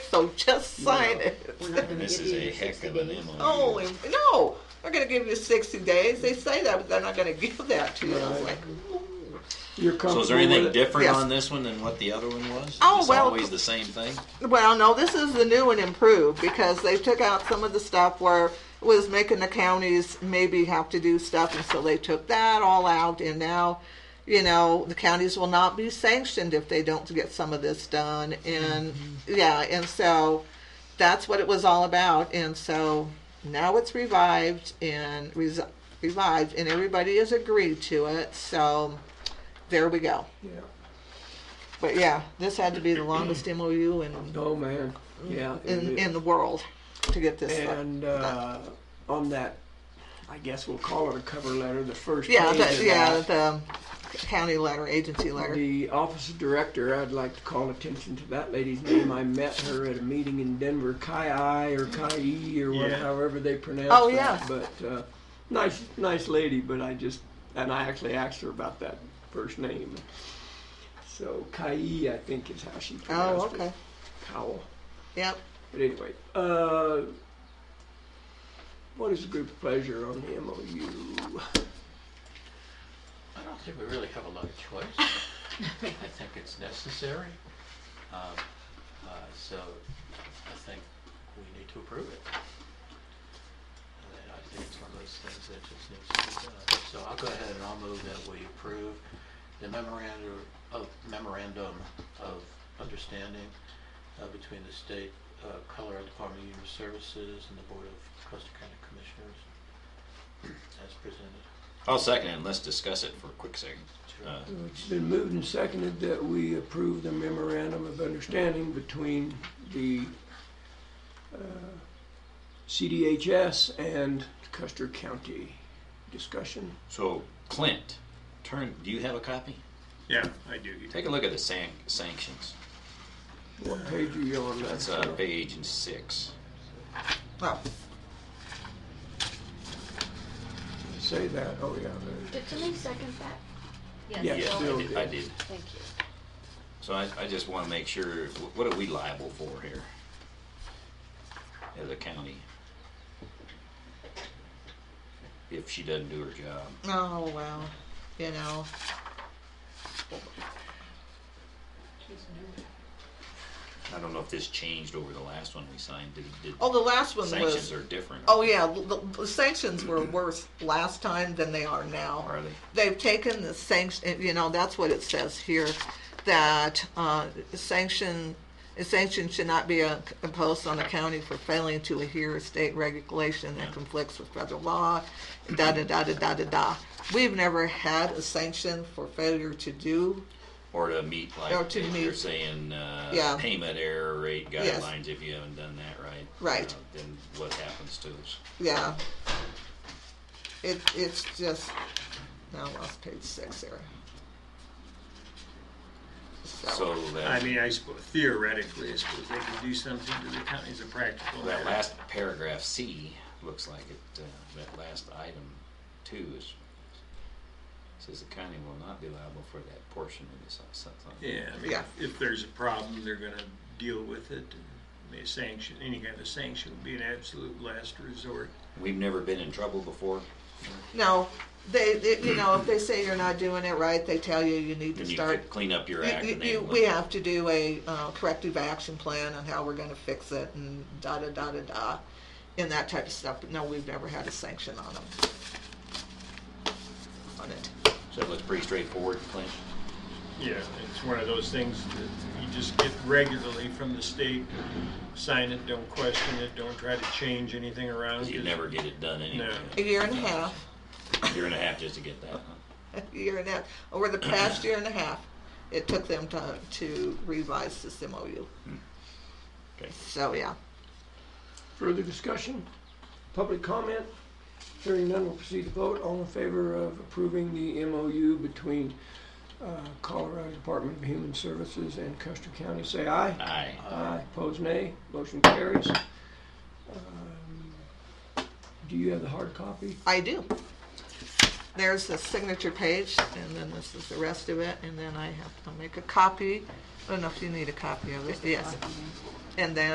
so just sign it. We're not gonna This give is you a the heck 60 of an days. MOU. Holy, no, they're gonna give you sixty days. They say that, but they're not gonna give that to you. It's like, You're comfortable So is there with anything it? different Yes. on this one than what the other one was? Oh, It's well, always the same thing? Well, no, this is the new and improved because they took out some of the stuff where it was making the counties maybe have to do stuff, and so they took that all out, and now, you know, the counties will not be sanctioned if they don't get some of this done, and yeah, and so that's what it was all about, and so now it's revived and res- revived, and everybody has agreed to it, so there we go. Yeah. But yeah, this had to be the longest MOU and Oh man, yeah. it in, is. in the world to get this stuff. and uh, on that, I guess we'll call it a cover letter. The first yeah, page of the, yeah, that, the um, county letter, agency letter. The office director, I'd like to call attention to that lady's name. I met her at a meeting in Denver, Kai I or Kai E or whatever Yeah. however they pronounce Oh, that. yeah. But uh, nice, nice lady. But I just and I actually asked her about that first name. So Kai, E, I think is how she pronounced Oh, okay. it. Cowell. Yep. But anyway, uh, what is the group's pleasure on the MOU? I don't think we really have a lot of choice. I think it's necessary. Um, uh, So I think we need to approve it. And I think it's one of those things that just needs to be done. So I'll go ahead and I'll move that we approve the memorandum of, memorandum of understanding uh, between the state, uh, Colorado Department of Human Services and the Board of Custer County Commissioners as presented. I'll second it, and let's discuss it for a quick second. Uh, It's been moved and seconded that we approve the memorandum of understanding between the uh, CDHS and Custer County. Discussion? So Clint, turn, do you have a copy? Yeah, I do. Take a look at the san- sanctions. What page are you on? That's uh, page six. Oh, Say that, oh yeah. there. Did somebody second that? Yes, Yeah, I Bill did- I did. Thank you. So I, I just want to make sure, wh- what are we liable for here? As a county? If she doesn't do her job. oh well, you know. I don't know if this changed over the last one we signed. Did, did Oh, the last one was. sanctions are different? Oh yeah, the, the sanctions were worse last time than they are now. Are they? They've taken the sanction. You know, that's what it says here, that uh, sanction. A sanction should not be uh, imposed on a county for failing to adhere to state regulation that conflicts with federal law. Da da da da da da da. We've never had a sanction for failure to do. Or to meet like Or to if meet. you're saying uh, Yeah. payment error rate Yes. guidelines. If you haven't done that right, Right. uh, then what happens to us? Yeah. It it's just now I lost page six there. So, So that, I mean, I suppose theoretically, I suppose they could do something to the county as a practical that matter. last paragraph C looks like it. Uh, that last item two is says the county will not be liable for that portion of this. uh, Something. Yeah, I mean, Yeah. if there's a problem, they're gonna deal with it. I mean, sanction, any kind of sanction would be an absolute last resort. We've never been in trouble before. no, they, they- you know if they say you're not doing it right, they tell you you need to And you start. could clean up your you- act. you- and then you- look we have to do a uh, corrective action plan on how we're going to fix it and da da da da da, and that type of stuff. But no, we've never had a sanction on them. On it. So it looks pretty straightforward, Clint. Yeah, it's one of those things that you just get regularly from the state. Sign it, don't question it, don't try to change anything around. You just- never get it done anyway. A year and a half. Year and a half just to get that. huh? year and a half, over the past year and a half, it took them to, to revise this MOU. Okay. So, yeah. Further discussion? Public comment? Hearing none, we'll proceed to vote. All in favor of approving the MOU between uh, Colorado Department of Human Services and Custer County, say aye. Aye. Aye. Pose nay. Motion carries. Um, Do you have the hard copy? I do. There's the signature page, and then this is the rest of it, and then I have to make a copy. I don't know if you need a copy of it, yes. And then